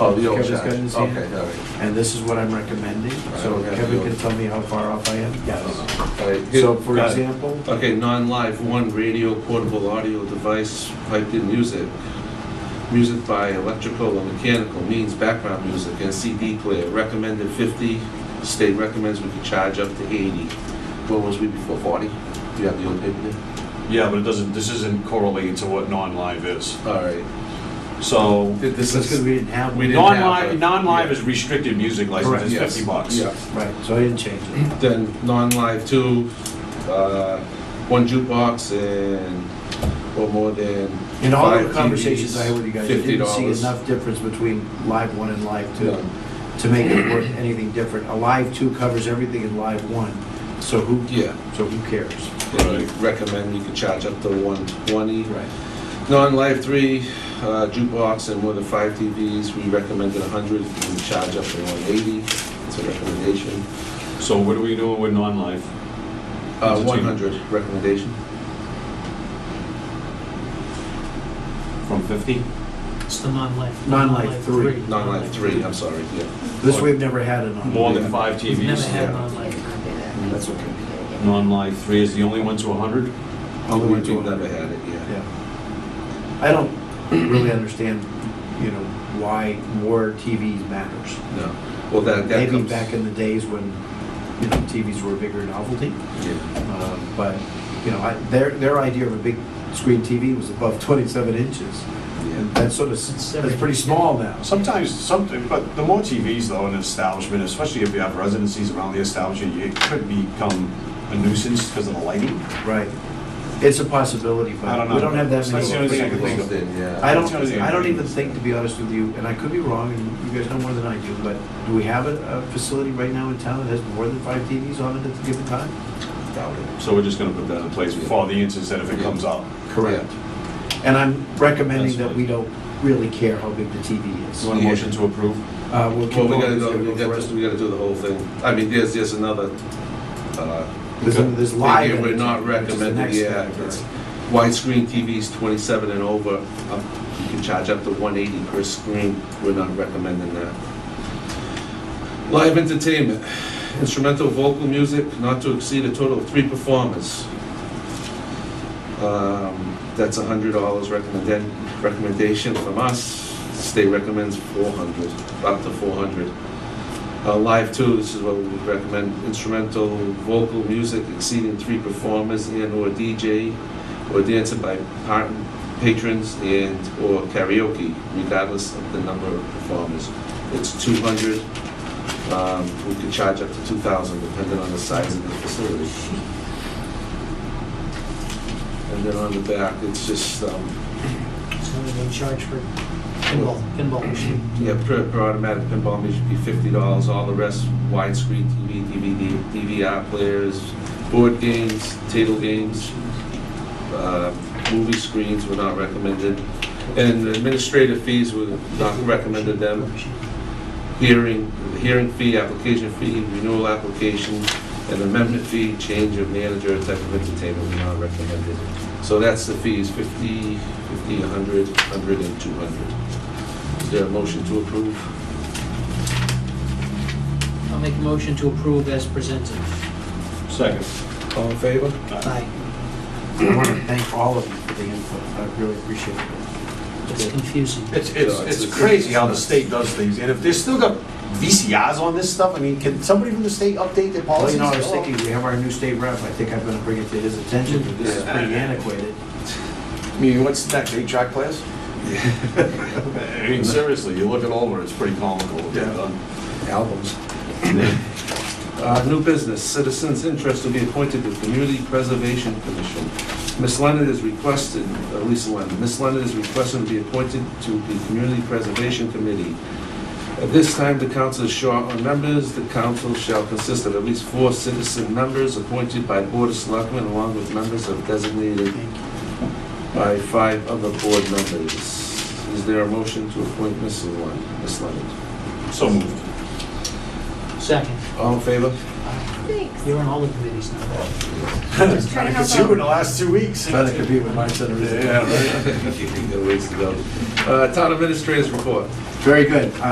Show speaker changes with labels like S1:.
S1: Oh, the old
S2: Kevin's
S1: check.
S2: got in his hand.
S1: Okay, all right.
S2: And this is what I'm recommending, so
S1: Alright, okay.
S2: Kevin can tell me how far off I am? Yes.
S1: All right.
S2: So for
S1: Got it.
S2: example,
S1: Okay, non-live, one radio portable audio device piped in music. Music by electrical or mechanical means background music and CD player, recommended fifty, state recommends we can charge up to eighty. What was we before, forty? You have the old paper there?
S3: Yeah, but it doesn't, this isn't correlating to what non-live is.
S1: All right.
S3: So,
S2: this is because we didn't have.
S1: We didn't
S2: one.
S1: have
S3: non-live,
S1: it.
S3: non-live
S1: Yeah.
S3: is restricted music license, it's
S1: Correct.
S3: fifty bucks.
S1: Yeah.
S2: Right, so I didn't change it.
S1: Then non-live two, uh, one jukebox and, or more than
S2: In all the
S1: Five
S2: conversations
S1: TVs,
S2: I had with you guys, I didn't see
S1: $50.
S2: enough difference between live one and live
S1: two.
S2: two to make it work anything different. A live two covers everything in live one, so who,
S1: Yeah.
S2: so who cares?
S1: And we recommend you can charge up to one twenty.
S2: Right.
S1: Non-live three uh, jukebox and more than five TVs, we recommended 100, we charge up to 180, it's a recommendation.
S3: So what are we doing with non-live?
S1: Uh, 100 recommendation,
S3: From fifty?
S4: It's the non-life.
S2: Non-life three.
S1: non-live three, I'm sorry, yeah.
S2: This we've never had it on.
S3: More than
S1: Yeah.
S3: five
S4: We've never
S3: TVs?
S4: had
S1: yeah.
S4: non-life.
S2: That's okay.
S3: Non-live three is the only one to hundred?
S2: Only
S1: We-
S2: went to
S1: We've never
S2: 100.
S1: had it, yeah.
S2: Yeah. I don't really understand, you know, why more TVs matters.
S1: No, well, that, that
S2: Maybe
S1: comes.
S2: back in the days when, you know, TVs were a bigger novelty,
S1: Yeah,
S2: um, but, you know, I- their, their idea of a big screen TV was above 27 inches. And
S1: yeah.
S2: that's sort of,
S4: It's
S2: that's pretty small now.
S3: Sometimes, something, but the more TVs though in an establishment, especially if you have residencies around the establishment, it could become a nuisance because of the lighting.
S2: Right. It's a possibility,
S3: I
S2: but
S3: don't
S2: we
S3: know.
S2: don't have that
S3: That's the only thing I
S2: many.
S3: can think of.
S1: Then, yeah.
S2: I don't,
S3: That's the only thing I
S2: I don't
S3: can
S2: even think, to be honest with you, and I could be wrong, and you guys know more than I do, but do we have a, a facility right now in town that has more than five TVs on it at the given time?
S1: Doubt it.
S3: So we're just gonna put that in place for the instance that if it
S1: Yeah.
S3: comes up.
S2: Correct. And I'm recommending
S3: That's
S2: that we don't really care how big the TV is.
S3: You want a
S1: Yeah.
S3: motion to approve?
S2: Uh, we'll keep
S1: Well, we
S2: going.
S1: gotta
S2: It's
S1: go,
S2: gonna
S1: we
S2: go
S1: gotta,
S2: first.
S1: we gotta do the whole thing. I mean, there's, there's another, uh,
S2: There's, there's
S1: Thing
S2: live.
S1: here, We're not
S2: entertainment, which is the next
S1: recommending, yeah,
S2: category.
S1: it's widescreen TVs 27 and over, up- you can charge up to 180 per screen, we're not recommending that. Live entertainment, instrumental vocal music not to exceed a total of three performers. Um, That's $100 recommended, recommendation from us, state recommends 400, up to 400. Uh, Live too, this is what we would recommend, instrumental, vocal, music exceeding three performers and/or DJ, or dancing by par- patrons and/or karaoke, regardless of the number of performers. It's 200, um, we could charge up to 2,000, depending on the size of the facility. And then on the back, it's just, um,
S4: It's only been charged for pinball, pinball
S1: mm-hmm.
S4: machine.
S1: Yeah, per, per automatic pinball machine should be fifty dollars, all the rest widescreen TV, DVD, DVR players, board games, table games, uh, movie screens were not recommended. And administrative fees were not recommended them, hearing, hearing fee, application fee, renewal application, and amendment fee, change of manager, type of entertainment were not recommended. So that's the fees, fifty, fifty, a hundred, hundred and two hundred. Is there a motion to approve?
S4: I'll make a motion to approve as presented.
S3: Second.
S1: All in favor?
S4: Aye.
S2: I want to thank all of you for the input. I really appreciate it.
S4: It's confusing.
S3: It's, it's, it's crazy how the state does things, and if they still got VCRs on this stuff, I mean, can somebody from the state update their
S2: Well,
S3: policies?
S2: you know, I was thinking, we have our new state rep. I think I'm going to bring it to his attention, but this is
S1: Yeah.
S2: pretty antiquated.
S3: I mean, what's next, eight track players? I mean, seriously, you look it over, it's pretty comical what they've
S1: Yeah.
S3: done.
S1: Albums. Uh, New business, citizens' interest to be appointed to Community Preservation Commission. Miss Leonard is requested, uh, Lisa Leonard, Miss Leonard is requested to be appointed to the Community Preservation Committee. At this time, the council is short on members. The council shall consist of at least four citizen members appointed by Board of Selectmen along with members of designated
S4: Thank you.
S1: by five other board members. Is there a motion to appoint Miss Leonard? Miss Leonard?
S3: So moved.
S4: Second,
S1: All in favor?
S5: Thanks.
S4: you're on all the committees now.
S5: Just trying to
S3: It's
S5: help
S3: you in
S5: out.
S3: the last two weeks.
S2: Trying to compete with my center.
S3: Yeah, right.
S1: You got ways to go. Uh, Town administrators report.
S2: Very good.